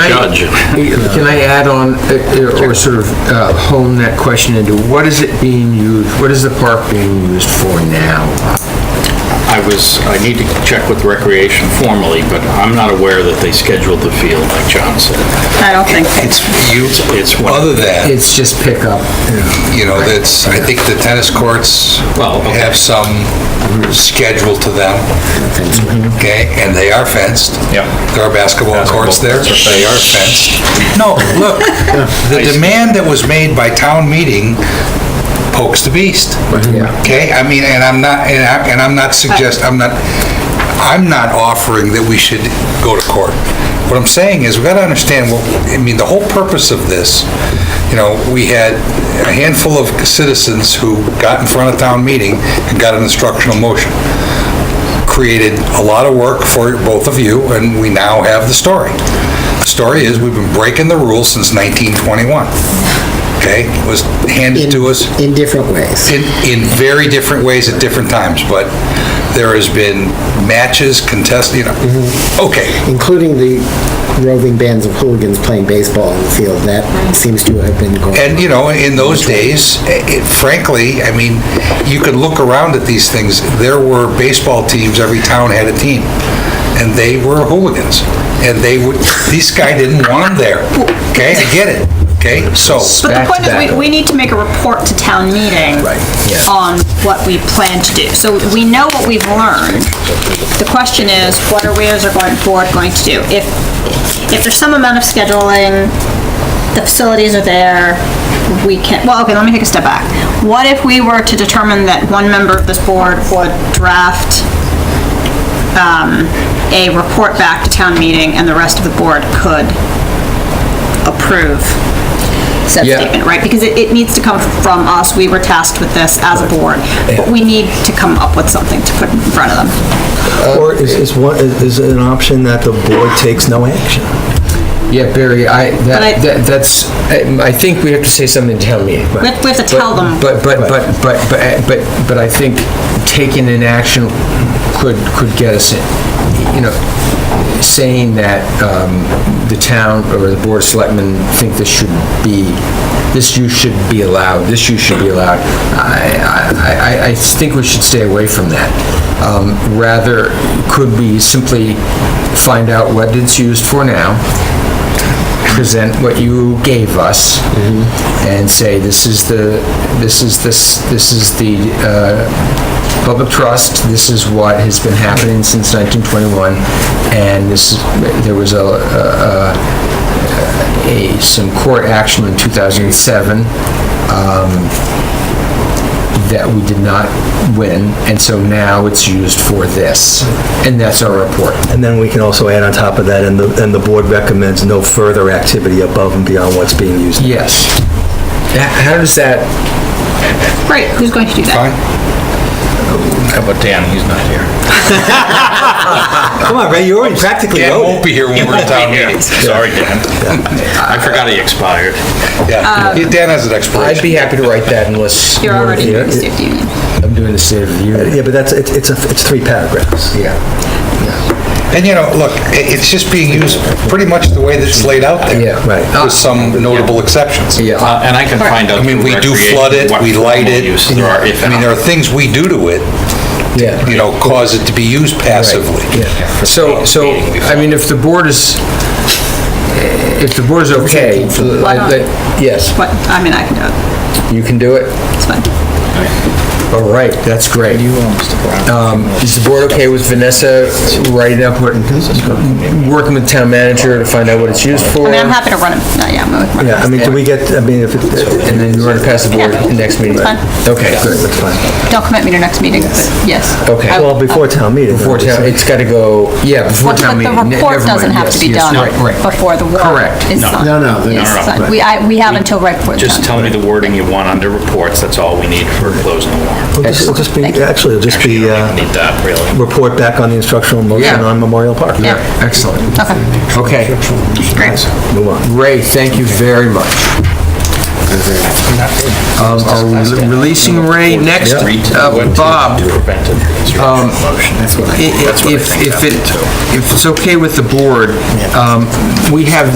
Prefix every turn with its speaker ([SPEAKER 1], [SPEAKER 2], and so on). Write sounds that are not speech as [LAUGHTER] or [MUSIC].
[SPEAKER 1] I-
[SPEAKER 2] judge.
[SPEAKER 1] Can I add on, uh, or sort of uh, hone that question into, what is it being used, what is the park being used for now?
[SPEAKER 2] I was, I need to check with Recreation formally, but I'm not aware that they scheduled the field like John said.
[SPEAKER 3] I don't think so.
[SPEAKER 4] It's you,
[SPEAKER 2] It's, it's one,
[SPEAKER 4] other than,
[SPEAKER 1] It's just pickup.
[SPEAKER 4] you know, that's, I think the tennis courts
[SPEAKER 2] Well, okay.
[SPEAKER 4] have some schedule to them. Okay, and they are fenced.
[SPEAKER 2] Yep.
[SPEAKER 4] There are basketball courts there,
[SPEAKER 2] courts are
[SPEAKER 4] they are fenced. No, look, the demand that was made by town meeting pokes the beast. Okay, I mean, and I'm not, and I- and I'm not suggest, I'm not, I'm not offering that we should go to court. What I'm saying is, we gotta understand, well, I mean, the whole purpose of this, you know, we had a handful of citizens who got in front of town meeting and got an instructional motion. Created a lot of work for both of you, and we now have the story. The story is, we've been breaking the rules since 1921, okay? It was handed to us
[SPEAKER 5] In different ways.
[SPEAKER 4] in, in very different ways at different times, but there has been matches contested, you know, okay,
[SPEAKER 5] including the roving bands of hooligans playing baseball in the field. That seems to have been going.
[SPEAKER 4] and you know, in those days, eh, it- frankly, I mean, you could look around at these things, there were baseball teams, every town had a team, and they were hooligans, and they would, [LAUGHS] this guy didn't want them there, okay, I get it, okay, so.
[SPEAKER 3] But the
[SPEAKER 1] Back to
[SPEAKER 3] point is,
[SPEAKER 1] back.
[SPEAKER 3] we, we need to make a report to town meeting on what we plan to do. So we know what we've learned. The question is, what are we as a going board going to do? If, if there's some amount of scheduling, the facilities are there, we can, well, okay, let me take a step back. What if we were to determine that one member of this board would draft um, a report back to town meeting and the rest of the board could approve said
[SPEAKER 1] Yeah.
[SPEAKER 3] statement, right? Because it, it needs to come from us, we were tasked with this as a board, but we need to come up with something to put in front of them.
[SPEAKER 6] Or is, is one, is is it an option that the board takes no action?
[SPEAKER 1] Yeah, Barry, I,
[SPEAKER 3] But I-
[SPEAKER 1] that, that- that's, I I think we have to say something to town meeting.
[SPEAKER 3] We have we have to tell them.
[SPEAKER 1] But, but, but, but, but, but, but I think taking an action could, could get us, in. you know, saying that um, the town or the board of selectmen think this should be, this use should be allowed, this use should be allowed, I, I, I- I think we should stay away from that. Um, Rather, could we simply find out what it's used for now, present what you gave us and say, this is the, this is this, this is the uh, public trust, this is what has been happening since 1921, and this, is- there was a, a- a, some court action in 2007 um, that we did not win, and so now it's used for this, and that's our report.
[SPEAKER 6] And then we can also add on top of that, and the, and the board recommends no further activity above and beyond what's being used.
[SPEAKER 1] Yes. How how does that
[SPEAKER 3] Great, who's going to do that?
[SPEAKER 4] Fine.
[SPEAKER 2] how about Dan, he's not here.
[SPEAKER 6] Come on, Ray, you already practically
[SPEAKER 4] Dan
[SPEAKER 6] wrote
[SPEAKER 4] won't
[SPEAKER 6] it.
[SPEAKER 4] be here when we're in
[SPEAKER 2] [LAUGHS]
[SPEAKER 4] town meeting.
[SPEAKER 2] Sorry, Dan. I forgot he expired.
[SPEAKER 3] uh,
[SPEAKER 4] Yeah, Dan has an
[SPEAKER 1] I'd
[SPEAKER 4] expiration.
[SPEAKER 1] be happy to write that unless
[SPEAKER 3] You're already
[SPEAKER 6] Yeah,
[SPEAKER 3] doing the
[SPEAKER 6] it-
[SPEAKER 3] safety union.
[SPEAKER 1] I'm doing the State of the Union.
[SPEAKER 6] Yeah, but that's, it's, it's a- it's three paragraphs.
[SPEAKER 1] Yeah.
[SPEAKER 4] And you know, look, i- it's just being used pretty much the way that it's laid out there.
[SPEAKER 1] Yeah.
[SPEAKER 6] Right.
[SPEAKER 4] With some notable exceptions.
[SPEAKER 1] Yeah.
[SPEAKER 2] Uh, And I can find out.
[SPEAKER 4] I mean,
[SPEAKER 2] through
[SPEAKER 4] we do
[SPEAKER 2] Recreation
[SPEAKER 4] flood it,
[SPEAKER 2] what
[SPEAKER 4] we light
[SPEAKER 2] formal
[SPEAKER 4] it.
[SPEAKER 2] use there are, if
[SPEAKER 4] I mean, there are things we do to it,
[SPEAKER 1] Yeah.
[SPEAKER 4] you know, cause it to be used passively.
[SPEAKER 1] So, so, I mean, if the board is, if the board is okay,
[SPEAKER 3] Why
[SPEAKER 1] I-
[SPEAKER 3] not?
[SPEAKER 1] that- yes,
[SPEAKER 3] What, I mean, I can do it,
[SPEAKER 1] you can do it.
[SPEAKER 3] it's fine.
[SPEAKER 1] All right, that's great. Um, Is the board okay with Vanessa writing up what, working with town manager to find out what it's used for?
[SPEAKER 3] I mean, I'm
[SPEAKER 1] And
[SPEAKER 3] happy to run it, no, yeah, I'm gonna run it.
[SPEAKER 6] Yeah, I mean, do we get, I mean, if it,
[SPEAKER 1] then you want to pass the board next meeting?
[SPEAKER 3] It's fine.
[SPEAKER 1] Okay, good.
[SPEAKER 6] that's fine.
[SPEAKER 3] Don't commit me to next meeting, but yes.
[SPEAKER 1] Okay.
[SPEAKER 3] I-
[SPEAKER 6] Well, before town meeting.
[SPEAKER 1] Before town,
[SPEAKER 6] obviously.
[SPEAKER 1] it's got to go, yeah, before
[SPEAKER 3] But
[SPEAKER 1] town
[SPEAKER 3] but
[SPEAKER 1] meeting.
[SPEAKER 3] the
[SPEAKER 1] Ne-
[SPEAKER 3] report
[SPEAKER 1] never mind,
[SPEAKER 3] doesn't have to
[SPEAKER 1] yes,
[SPEAKER 3] be
[SPEAKER 1] yes,
[SPEAKER 3] done
[SPEAKER 1] Right, right.
[SPEAKER 3] before the warrant
[SPEAKER 1] Correct.
[SPEAKER 3] is
[SPEAKER 2] No.
[SPEAKER 3] signed.
[SPEAKER 2] No,
[SPEAKER 5] no, no,
[SPEAKER 3] It's
[SPEAKER 2] no,
[SPEAKER 3] signed.
[SPEAKER 2] right.
[SPEAKER 3] We, I, we have until right before it's
[SPEAKER 2] Just
[SPEAKER 3] done.
[SPEAKER 2] tell me the wording you want under reports, that's all we need for closing the warrant.
[SPEAKER 6] It'll just- It'll just be, actually, it'll just
[SPEAKER 2] Actually, you
[SPEAKER 6] be,
[SPEAKER 2] don't even
[SPEAKER 6] uh,
[SPEAKER 2] need that, really.
[SPEAKER 6] report back on the instructional motion
[SPEAKER 1] Yeah.
[SPEAKER 6] on Memorial Park.
[SPEAKER 3] Yeah.
[SPEAKER 1] Excellent.
[SPEAKER 3] Okay.
[SPEAKER 1] Okay,
[SPEAKER 3] Great.
[SPEAKER 6] Move on.
[SPEAKER 1] Ray, thank you very much. Um, Are we releasing Ray next? Uh, Bob,
[SPEAKER 2] Prevented
[SPEAKER 1] um,
[SPEAKER 2] obstruction of motion.
[SPEAKER 1] i- i- if, if it, if it's okay with the board, um, we have